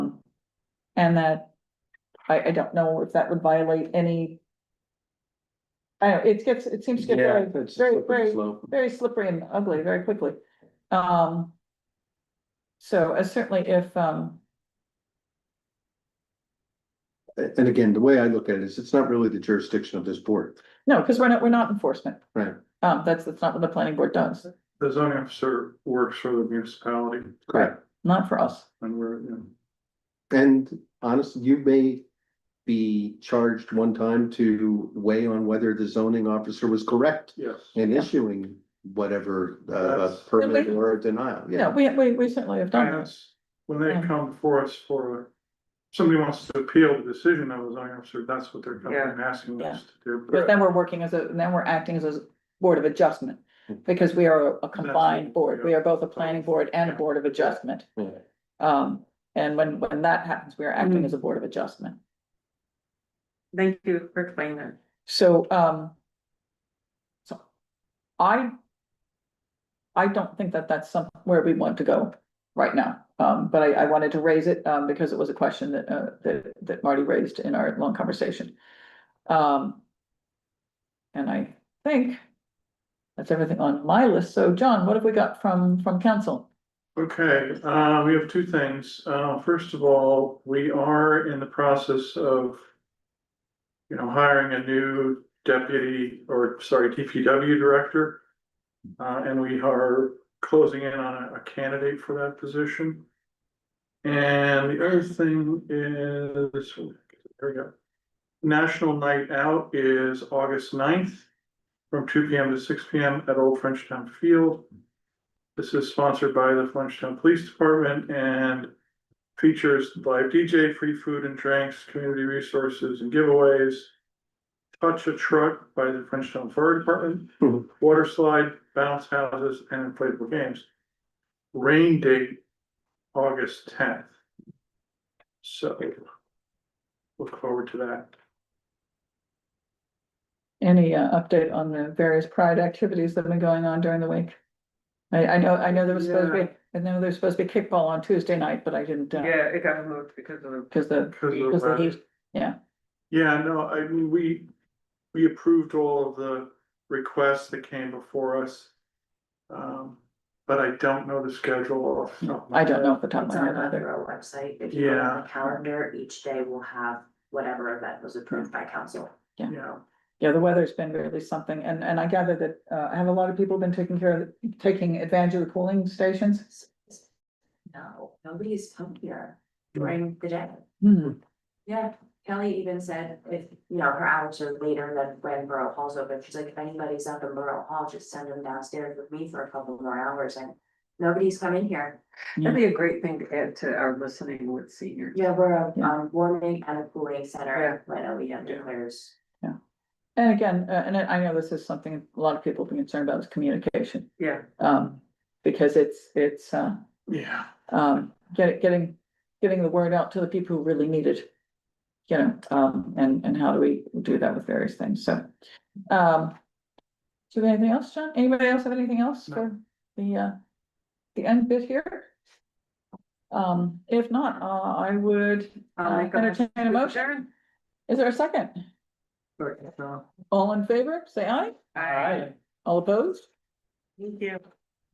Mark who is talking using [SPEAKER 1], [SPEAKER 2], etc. [SPEAKER 1] And that, I, I don't know if that would violate any. I don't, it gets, it seems to get
[SPEAKER 2] Yeah,
[SPEAKER 1] very,
[SPEAKER 2] it's a
[SPEAKER 1] very,
[SPEAKER 2] slippery
[SPEAKER 1] very,
[SPEAKER 2] slope.
[SPEAKER 1] very slippery and ugly very quickly. Um. So, uh, certainly if, um,
[SPEAKER 2] A- And again, the way I look at it is it's not really the jurisdiction of this board.
[SPEAKER 1] no, because we're not, we're not enforcement.
[SPEAKER 2] Right.
[SPEAKER 1] Um, that's, that's not what the planning board does,
[SPEAKER 3] The zoning officer works for the municipality
[SPEAKER 2] Correct.
[SPEAKER 1] not for us.
[SPEAKER 3] and we're, you know.
[SPEAKER 2] And honestly, you may be charged one time to weigh on whether the zoning officer was correct
[SPEAKER 3] Yes.
[SPEAKER 2] in issuing whatever uh
[SPEAKER 3] That's-
[SPEAKER 2] permit or denial,
[SPEAKER 1] Yeah,
[SPEAKER 2] yeah.
[SPEAKER 1] we, we, we certainly have done that.
[SPEAKER 3] That's- When they
[SPEAKER 1] Yeah.
[SPEAKER 3] come for us for, somebody wants to appeal the decision of the zoning officer, that's what they're coming
[SPEAKER 4] Yeah.
[SPEAKER 3] and asking us to do.
[SPEAKER 1] Because then we're working as a, then we're acting as a board of adjustment,
[SPEAKER 2] Hmm.
[SPEAKER 1] because we are a combined board, we are both a planning board and a board of adjustment.
[SPEAKER 2] Yeah.
[SPEAKER 1] Um, and when, when that happens, we are acting as a board of adjustment,
[SPEAKER 4] Thank you for explaining that.
[SPEAKER 1] so, um. So, I. I don't think that that's some, where we want to go right now, um, but I, I wanted to raise it, um, because it was a question that, uh, that, that Marty raised in our long conversation. Um. And I think. That's everything on my list, so John, what have we got from, from council?
[SPEAKER 3] Okay, uh, we have two things. Uh, first of all, we are in the process of. You know, hiring a new deputy or sorry, DPW director. Uh, and we are closing in on a- a candidate for that position. And the other thing is, there we go. National Night Out is August 9th from two P M to six P M at Old Frenchtown Field. This is sponsored by the Flintstone Police Department and features live DJ, free food and drinks, community resources and giveaways. Touch a Truck by the Flintstone Fire Department,
[SPEAKER 2] Mhm.
[SPEAKER 3] water slide, bounce houses and inflatable games. Rain date, August tenth. So look forward to that.
[SPEAKER 1] Any uh, update on the various pride activities that have been going on during the week? I, I know, I know there was supposed to be, I know there's supposed to be kickball on Tuesday night, but I didn't, uh,
[SPEAKER 4] Yeah, it got moved because of the.
[SPEAKER 1] because the,
[SPEAKER 3] Because of the
[SPEAKER 1] because the
[SPEAKER 3] weather.
[SPEAKER 1] heat, yeah.
[SPEAKER 3] Yeah, no, I mean, we, we approved all of the requests that came before us. Um, but I don't know the schedule off. the top of my
[SPEAKER 1] I don't know
[SPEAKER 3] head.
[SPEAKER 1] if the top of
[SPEAKER 5] It's
[SPEAKER 1] my
[SPEAKER 5] on
[SPEAKER 1] head
[SPEAKER 5] the
[SPEAKER 1] either.
[SPEAKER 5] Borough website, if you go
[SPEAKER 3] Yeah.
[SPEAKER 5] on the calendar, each day will have whatever event was approved by council.
[SPEAKER 3] Yeah,
[SPEAKER 1] Yeah, the weather's been really something, and, and I gather that, uh, have a lot of people been taking care of, taking advantage of the cooling stations?
[SPEAKER 5] No, nobody's come here during the day.
[SPEAKER 1] Hmm,
[SPEAKER 5] Yeah, Kelly even said if, you know, her hours are later than when Borough Hall's open, she's like, if anybody's up in Borough Hall, just send them downstairs with me for a couple more hours and. Nobody's come in here.
[SPEAKER 4] That'd be a great thing to add to our listening with seniors.
[SPEAKER 5] Yeah, we're a
[SPEAKER 1] Yeah.
[SPEAKER 5] um warming and a cooling center when OEM declares.
[SPEAKER 1] and again, uh, and I I know this is something a lot of people have been concerned about is communication,
[SPEAKER 4] Yeah,
[SPEAKER 1] um, because it's, it's, uh,
[SPEAKER 3] yeah,
[SPEAKER 1] um, get, getting, getting the word out to the people who really need it. You know, um, and, and how do we do that with various things, so, um. Do we have anything else, John? Anybody else have anything else
[SPEAKER 3] No.
[SPEAKER 1] for the, uh, the end bit here? Um, if not, uh, I would
[SPEAKER 4] I'll
[SPEAKER 1] uh,
[SPEAKER 4] make a
[SPEAKER 1] entertain
[SPEAKER 4] motion
[SPEAKER 1] a
[SPEAKER 4] to
[SPEAKER 1] motion. Is there a second?
[SPEAKER 3] but, uh,
[SPEAKER 1] All in favor, say aye.
[SPEAKER 4] Aye.
[SPEAKER 1] All opposed?
[SPEAKER 4] Thank you.